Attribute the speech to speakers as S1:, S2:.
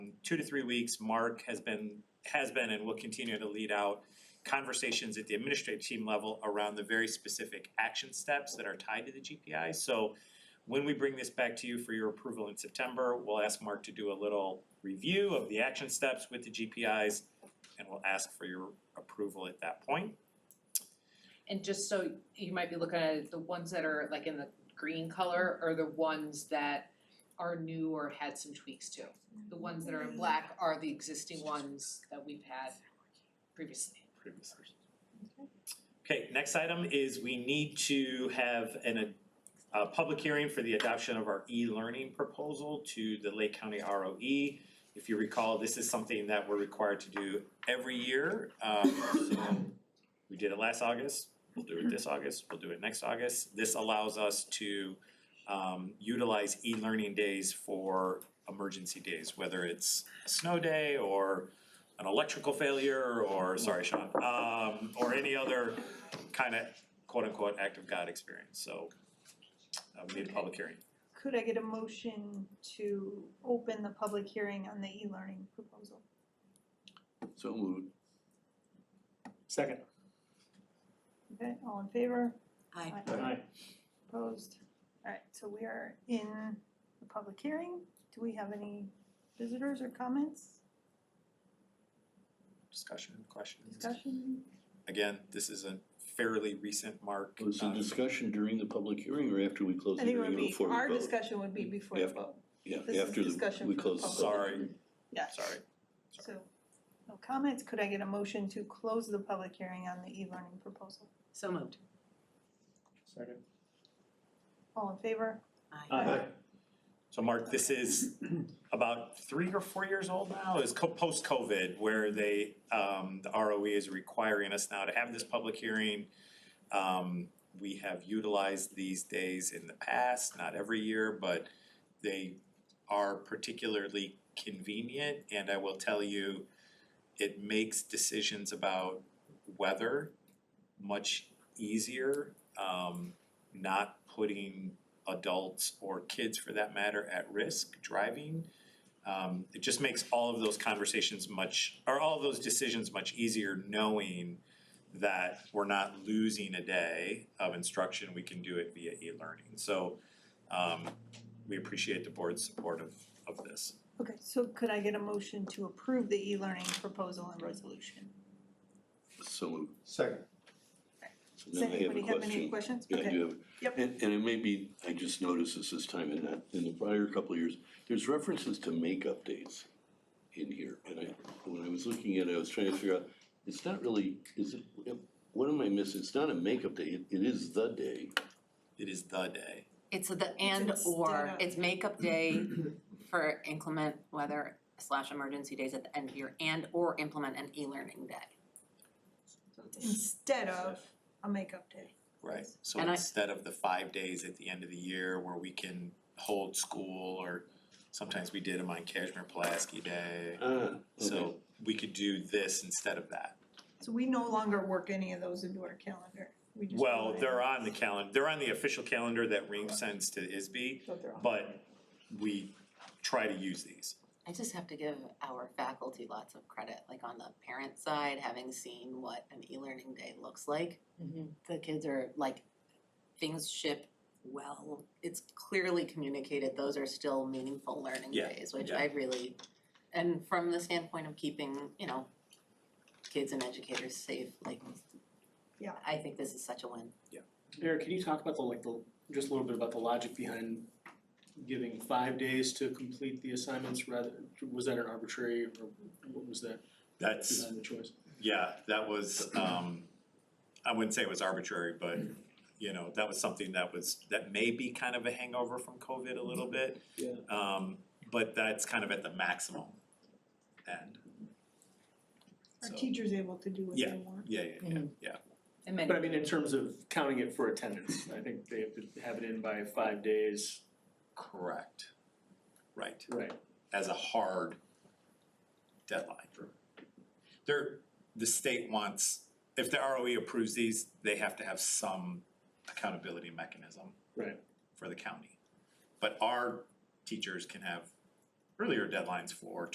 S1: two to three weeks, Mark has been, has been and will continue to lead out conversations at the administrative team level around the very specific action steps that are tied to the GPI. So when we bring this back to you for your approval in September, we'll ask Mark to do a little review of the action steps with the GPIs and we'll ask for your approval at that point.
S2: And just so you might be looking at it, the ones that are like in the green color are the ones that are new or had some tweaks to. The ones that are in black are the existing ones that we've had previously.
S1: previously. Okay, next item is we need to have an, a public hearing for the adoption of our e-learning proposal to the Lake County ROE. If you recall, this is something that we're required to do every year. Um, so we did it last August, we'll do it this August, we'll do it next August. This allows us to um, utilize e-learning days for emergency days, whether it's a snow day or an electrical failure or, sorry, Sean, um, or any other kind of quote unquote act of God experience, so. Uh, we need a public hearing.
S3: Could I get a motion to open the public hearing on the e-learning proposal?
S4: So moved.
S5: Second.
S3: Okay, all in favor?
S6: Aye.
S5: Aye.
S3: Opposed? Alright, so we are in the public hearing. Do we have any visitors or comments,
S1: Discussion, questions?
S3: discussion?
S1: Again, this is a fairly recent mark.
S4: Was the
S1: uh,
S4: discussion during the public hearing or after we closed
S3: I
S4: the
S3: think it
S4: hearing
S3: would
S4: or
S3: be,
S4: before we vote?
S3: our discussion would be before the
S4: Yeah.
S3: vote, this
S4: Yeah,
S3: is
S4: after the,
S3: discussion for
S4: we
S3: the
S4: closed the.
S3: public.
S1: Sorry,
S3: yeah.
S1: sorry.
S3: So, no comments. Could I get a motion to close the public hearing on the e-learning proposal?
S6: So moved.
S5: Second.
S3: All in favor?
S5: Aye.
S1: So Mark, this is about three or four years old now, is co- post-COVID, where they, um, the ROE is requiring us now to have this public hearing. Um, we have utilized these days in the past, not every year, but they are particularly convenient. And I will tell you, it makes decisions about weather much easier. Um, not putting adults or kids for that matter at risk driving. Um, it just makes all of those conversations much, or all of those decisions much easier knowing that we're not losing a day of instruction, we can do it via e-learning. So um, we appreciate the board's support of, of this.
S3: Okay, so could I get a motion to approve the e-learning proposal and resolution?
S4: So moved.
S5: Second.
S4: So
S3: Does
S4: now I have a
S3: anybody have any
S4: question.
S3: questions?
S4: Yeah, I
S3: Okay.
S4: do have.
S3: Yep.
S4: And, and it may be, I just noticed this this time and not in the prior couple of years, there's references to make-up dates in here. And I, when I was looking at it, I was trying to figure out, it's not really, is it, what am I missing? It's not a make-up day, it, it is the day.
S1: It is the day.
S6: It's the and
S3: It's instead
S6: or,
S3: of-
S6: it's makeup day for inclement weather slash emergency days at the end of year and or implement an e-learning day.
S3: So it's Instead of a makeup day.
S1: Right, so
S6: And I-
S1: instead of the five days at the end of the year where we can hold school or sometimes we did them on Kashmir Pulaski Day.
S4: Ah, okay.
S1: So we could do this instead of that.
S3: So we no longer work any of those into our calendar. We just
S1: Well,
S3: rely
S1: they're on the calendar, they're on the official calendar that Ring sends to ISB,
S3: So they're on.
S1: but we try to use these.
S6: I just have to give our faculty lots of credit, like on the parent side, having seen what an e-learning day looks like. The kids are like, things ship well, it's clearly communicated, those are still meaningful learning
S1: Yeah,
S6: days, which
S1: yeah.
S6: I really, and from the standpoint of keeping, you know, kids and educators safe, like
S3: Yeah.
S6: I think this is such a win.
S5: Eric, can you talk about the, like, the, just a little bit about the logic behind giving five days to complete the assignments rather, was that an arbitrary or what was that
S1: That's,
S5: behind the choice?
S1: yeah, that was, um, I wouldn't say it was arbitrary, but, you know, that was something that was, that may be kind of a hangover from COVID a little bit.
S5: Yeah.
S1: Um, but that's kind of at the maximum end.
S3: Our
S1: So,
S3: teacher's able to do what they want.
S1: yeah, yeah, yeah, yeah.
S2: And many
S5: But I mean, in terms of counting it for attendance, I think they have to have it in by five days.
S1: Correct. Right,
S5: Right.
S1: as a hard deadline. There, the state wants, if the ROE approves these, they have to have some accountability mechanism
S5: Right.
S1: for the county. But our teachers can have earlier deadlines for